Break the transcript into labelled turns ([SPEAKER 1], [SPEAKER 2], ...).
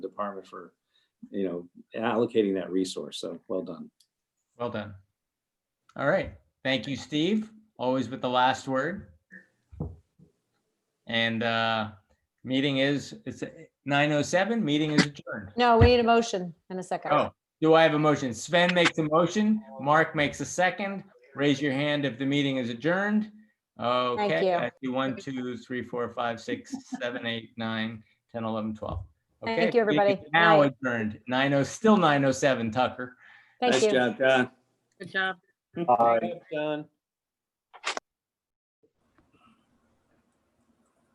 [SPEAKER 1] department for, you know, allocating that resource. So well done.
[SPEAKER 2] Well done. All right. Thank you, Steve. Always with the last word. And uh meeting is, it's 9:07, meeting is adjourned.
[SPEAKER 3] No, we need a motion in a second.
[SPEAKER 2] Oh, do I have a motion? Sven makes a motion, Mark makes a second. Raise your hand if the meeting is adjourned. Okay,
[SPEAKER 3] you.
[SPEAKER 2] I see one, two, three, four, five, six, seven, eight, nine, 10, 11, 12. Okay,
[SPEAKER 3] Thank
[SPEAKER 2] meeting
[SPEAKER 3] you, everybody.
[SPEAKER 2] is Now
[SPEAKER 3] Night.
[SPEAKER 2] adjourned, oh, 90, still 9:07, Tucker.
[SPEAKER 3] Thank
[SPEAKER 1] Nice
[SPEAKER 3] you.
[SPEAKER 1] job, Don.
[SPEAKER 4] Good job.
[SPEAKER 5] Aye.
[SPEAKER 1] Don.